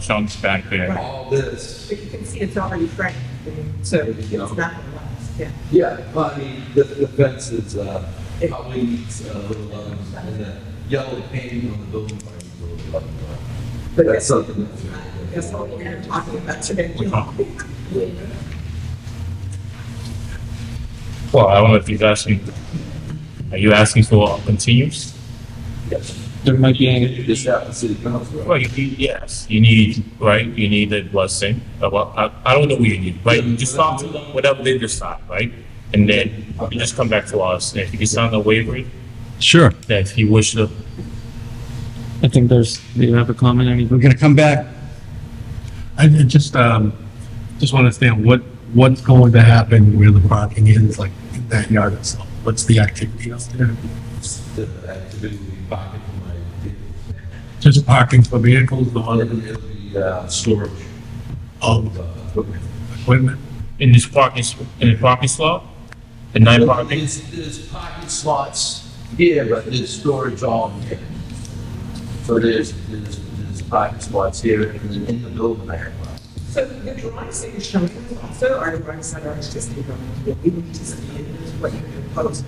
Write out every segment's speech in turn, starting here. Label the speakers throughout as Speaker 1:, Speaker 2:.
Speaker 1: chunks back there.
Speaker 2: All this,
Speaker 3: But you can see it's already cracked, so it's not gonna last, yeah.
Speaker 2: yeah, but I mean, the, the fence is, uh, probably needs a little, um, and the yellow painting on the building. might be a little bit, uh,
Speaker 3: But
Speaker 2: That's something
Speaker 3: That's
Speaker 2: that's.
Speaker 3: what we're gonna talk about today.
Speaker 1: Well, I don't know if he's asking, are you asking for a continuance?
Speaker 2: There might be any. This happens to the council.
Speaker 1: Well, you, you- yes, you need, right, you need a blessing, Uh, well, I, I don't know what you need, right? You just talk to them, whatever they decide, right? And then you just come back to us, and if you sign the waiver,
Speaker 4: Sure.
Speaker 1: that if you wish to,
Speaker 4: I think there's, do you have a comment? Any? We're gonna come back.
Speaker 5: I I just, um, just want to understand what, what's going to happen where the parking is, like in that yard itself? What's the activity out there?
Speaker 2: The activity pocket for my vehicle.
Speaker 5: Just parking for vehicles, the other
Speaker 2: And it'll be, uh, storage of,
Speaker 5: of
Speaker 2: uh,
Speaker 5: equipment?
Speaker 1: in this parking, s- in the parking slot, the night parking,
Speaker 2: There's, there's parking slots here, but there's storage all here. So there's, there's, there's parking slots here and then in the building I have. one.
Speaker 3: So the drawings that you're showing us also are drawings that are existing drawings. What we need to see is what you propose.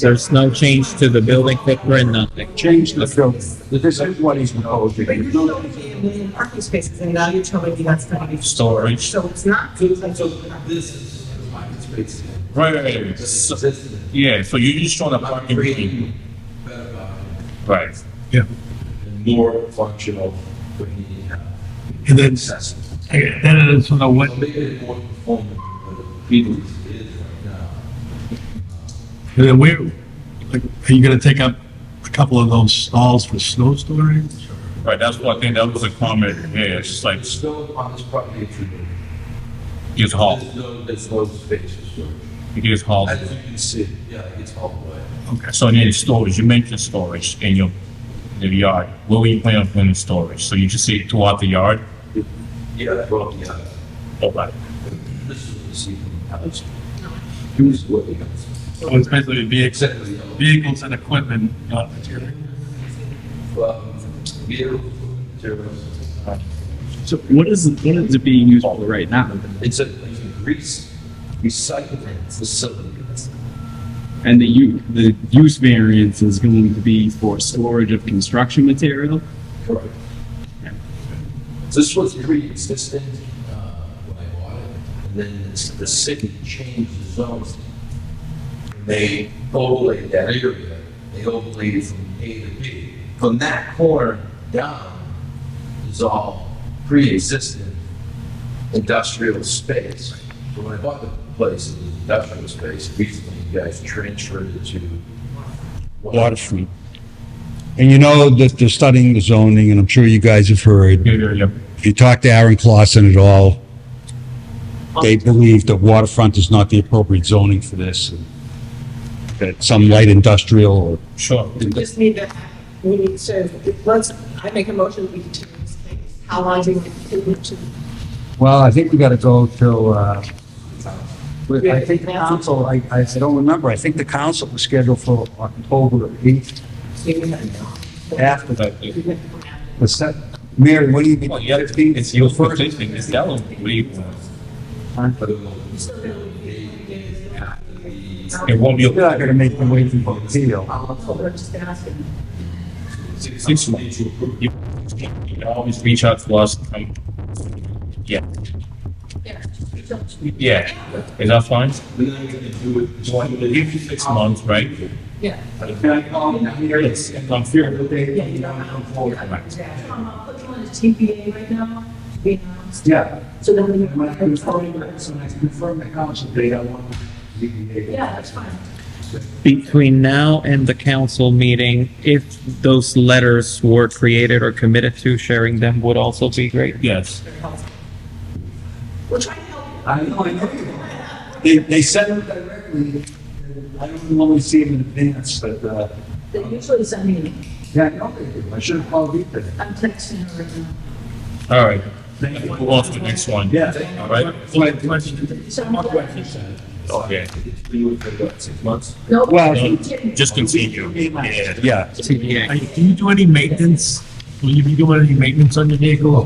Speaker 4: There's no change to the building footprint, nothing.
Speaker 6: change the film. This is what he's
Speaker 3: But
Speaker 6: proposing.
Speaker 3: you're showing me a million parking spaces and now you're telling me that's gonna be.
Speaker 1: Storage.
Speaker 3: So it's not good, like, so
Speaker 2: This is the parking space.
Speaker 1: right, right, right.
Speaker 2: This
Speaker 1: So-
Speaker 2: is, this is.
Speaker 1: Yeah, so you're just showing a
Speaker 2: I'm
Speaker 1: parking, area.
Speaker 2: creating better parking
Speaker 1: right?
Speaker 5: Yeah.
Speaker 2: and more functional when you have
Speaker 5: And then,
Speaker 2: access.
Speaker 5: then it's on the what,
Speaker 2: So maybe it's more performant than the Beatles is right now.
Speaker 5: and then where, like, are you gonna take up a couple of those stalls for snow storage?
Speaker 1: Right, that's what I think, that was a comment, yeah, it's just like,
Speaker 2: There's still on this property, it's, there's
Speaker 1: it's hauled,
Speaker 2: no, there's no space for storage.
Speaker 1: it's hauled.
Speaker 2: As you can see, yeah, it's all the way.
Speaker 1: So then storage, you mentioned storage in your, in your yard. Where were you planning on putting storage? So you just say throughout the yard?
Speaker 2: Yeah, that brought me up.
Speaker 1: Okay.
Speaker 2: This is the season house. Who's what they got?
Speaker 5: So it's basically vehicles,
Speaker 2: Except for the yellow.
Speaker 5: vehicles and equipment, not material.
Speaker 2: Um, vehicle materials.
Speaker 4: So what is, what is it being used for right now?
Speaker 2: It's a it's a grease recycling facility.
Speaker 4: And the u, the use variance is going to be for storage of construction material?
Speaker 2: Correct. This was pre-existing, uh, when I bought it, and then it's- the city changed the zones. They overlaid that area, they overlaid from A to B. From that corner down is all pre-existing industrial space. So When I bought the place, it was industrial space, recently you guys transferred it to.
Speaker 6: Water Street. And you know that they're studying the zoning, and I'm sure you guys have heard.
Speaker 1: Yeah, yeah, yeah.
Speaker 6: If you talk to Aaron Clausen at all, they believe that waterfront is not the appropriate zoning for this. and That some light industrial or
Speaker 1: Sure.
Speaker 3: we just need to, we need to, let's, I make a motion, we continue this thing. How long do you think it to?
Speaker 7: Well, I think we gotta go till, uh, we- I think the council, I, I don't remember, I think the council was scheduled for October eighth after that. The set, Mary, what do you mean?
Speaker 1: Well, Oh, yeah, it's your first thing, it's that one. What do you want?
Speaker 2: I don't know, it's A, after the
Speaker 1: It won't be
Speaker 7: You're not
Speaker 1: a
Speaker 7: gonna make them wait for the deal.
Speaker 3: October, just asking.
Speaker 1: six months. You you can always reach out to us. um, Yeah. Yeah, is that fine?
Speaker 2: We're not gonna do it.
Speaker 1: So I give you six months, right?
Speaker 3: Yeah.
Speaker 6: Can I call him here?
Speaker 1: Yes, and I'm fearing.
Speaker 3: Yeah, you don't have to. I'm uh, putting on a TPA right now, we announced,
Speaker 6: Yeah.
Speaker 3: so then we.
Speaker 6: And when I confirm that, so when I confirm the council date, I want to ZBA.
Speaker 3: Yeah, that's fine.
Speaker 4: Between now and the council meeting, if those letters were created or committed to, sharing them would also be great.
Speaker 1: Yes,
Speaker 3: Very helpful. We're trying to help you.
Speaker 6: I know, I know. you are. They, they send them directly. and I don't normally see them in advance, but, uh,
Speaker 3: They usually send me, an-
Speaker 6: yeah, I know they do. I should have called you today.
Speaker 3: I'm texting her right now.
Speaker 1: all right.
Speaker 6: Thank you.
Speaker 1: Move on to the next one.
Speaker 6: Yeah.
Speaker 1: All right.
Speaker 3: So I'm like,
Speaker 1: Okay.
Speaker 2: We would have got six months.
Speaker 3: no,
Speaker 6: Well,
Speaker 3: you didn't.
Speaker 1: Just continue. Yeah.
Speaker 6: Yeah.
Speaker 4: TBA.
Speaker 5: Do you do any maintenance? Will you be doing any maintenance on your vehicle?